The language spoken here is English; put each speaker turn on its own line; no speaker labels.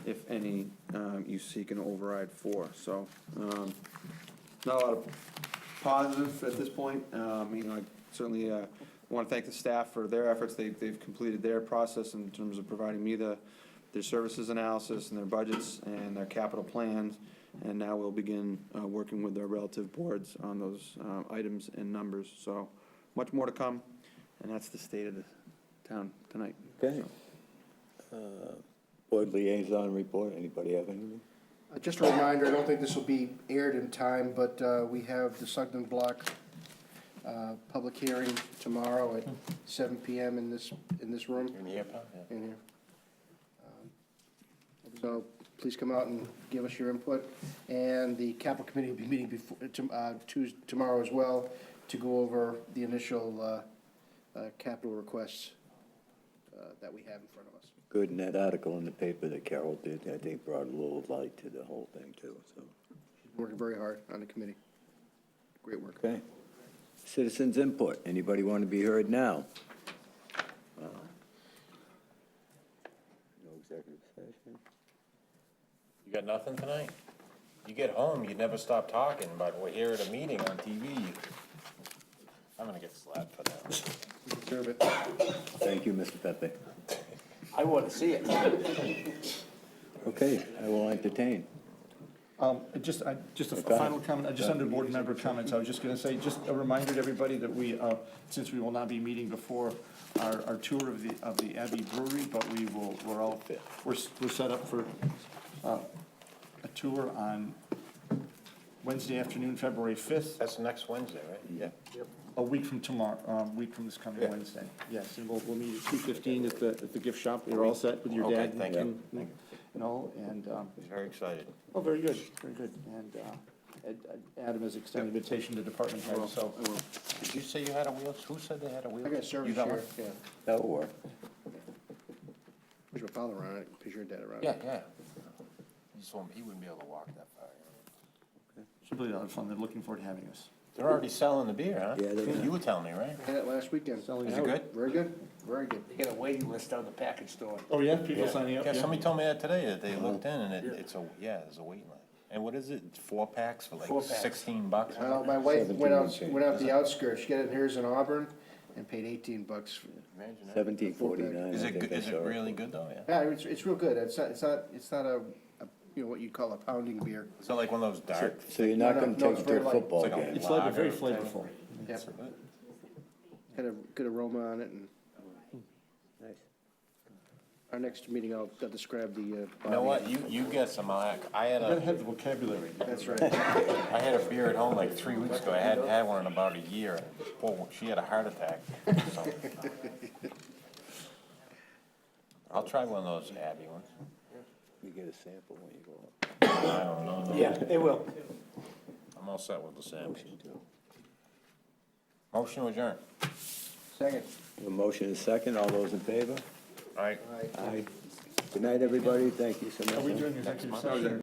if any, um, you seek an override for. So, um, not a lot of positive at this point. Um, You know, I certainly want to thank the staff for their efforts. They- They've completed their process in terms of providing me the, their services analysis and their budgets and their capital plans. And now we'll begin uh, working with their relative boards on those uh, items and numbers. So much more to come, and that's the state of the town tonight.
Okay. Uh, Board liaison report, anybody have anything?
Uh, Just a reminder, I don't think this will be aired in time, but uh, we have the Sugden Block uh, public hearing tomorrow at 7 PM in this, in this room,
In the airport, yeah.
in here. Um, So please come out and give us your input. And the capital committee will be meeting before, uh, Tuesday, tomorrow as well, to go over the initial uh, uh, capital requests uh, that we have in front of us.
Good, and that article in the paper that Carol did, I think brought a little light to the whole thing too, so.
Working very hard on the committee. Great work.
Okay. Citizens input, anybody want to be heard now? Uh, No executive session?
You got nothing tonight? You get home, you never stop talking, but we're here at a meeting on TV. I'm gonna get slapped for that.
You Deserve it.
Thank you, Mr. Pepe.
I wanna see it.
Okay, I will entertain.
Um, it Just, I, just a
Go ahead.
final comment, uh, just under board member comments, I was just gonna say, just a reminder to everybody that we, uh, since we will not be meeting before our, our tour of the, of the Abbey Brewery, but we will, we're all, we're, s- we're set up for, uh, a tour on Wednesday afternoon, February fifth,
That's next Wednesday, right? Yeah.
a week from tomorrow, um, week from this coming
Yeah.
Wednesday. Yes, and we'll, we'll meet at two fifteen at the, at the gift shop, you're all set with your
Okay,
dad.
thank
and-
you.
and- And all, and, um,
He's very excited.
Oh, very good, very good. And uh, Ed- Ed- Adam has extended an invitation to department head, so
Did you say you had a wheel? Who said they had a wheel?
I got a service
You got one?
here, yeah.
That'll work.
Push my father around it, push your dad around
Yeah,
it.
yeah. He just won't- he wouldn't be able to walk that far. you know.
should be a lot of fun. They're looking forward to having us.
They're already selling the beer, huh?
Yeah, they're-
You were telling me, right?
Had it last weekend.
Selling
Is it good?
Very good, very good.
They got a waiting list out of the package store.
Oh, yeah, people signing up?
Yeah, somebody told me that today, that they looked in and it, it's a, yeah, there's a waiting line. And what is it, four packs for
Four
like
packs.
sixteen bucks? or
Well, my wife went out, went out the outskirts, she got it hers in Auburn and paid eighteen bucks.
Imagine that.
Seventeen forty-nine,
Is
I
it,
think
good-
that's
is it
all right.
really good though, yeah?
Yeah, it's, it's real good, it's not, it's not, it's not a, a- you know, what you'd call a pounding beer.
Is it like one of those dark?
So you're not
No, no,
gonna
no,
take
it's
it to
very
a
light.
football
It's like a
game?
It's like, very
Lager type.
flavorful.
Yeah, Had a good aroma on it and our next meeting, I'll, I'll describe the, uh.
You
body.
know what, you, you guess I'm on, I had
Gotta
a,
have the vocabulary.
That's right,
I had a beer at home like three weeks ago, I hadn't had one in about a year, and whoa, she had a heart attack, so. I'll try one of those Abbey ones,
You get a sample when you go up.
I don't know,
Yeah, they will.
I'm all set with the sandwich. Motion adjourned.
second.
A motion is second, all those in favor?
All right.
Aye. Good night, everybody, thank you so much.
Are we doing executive session?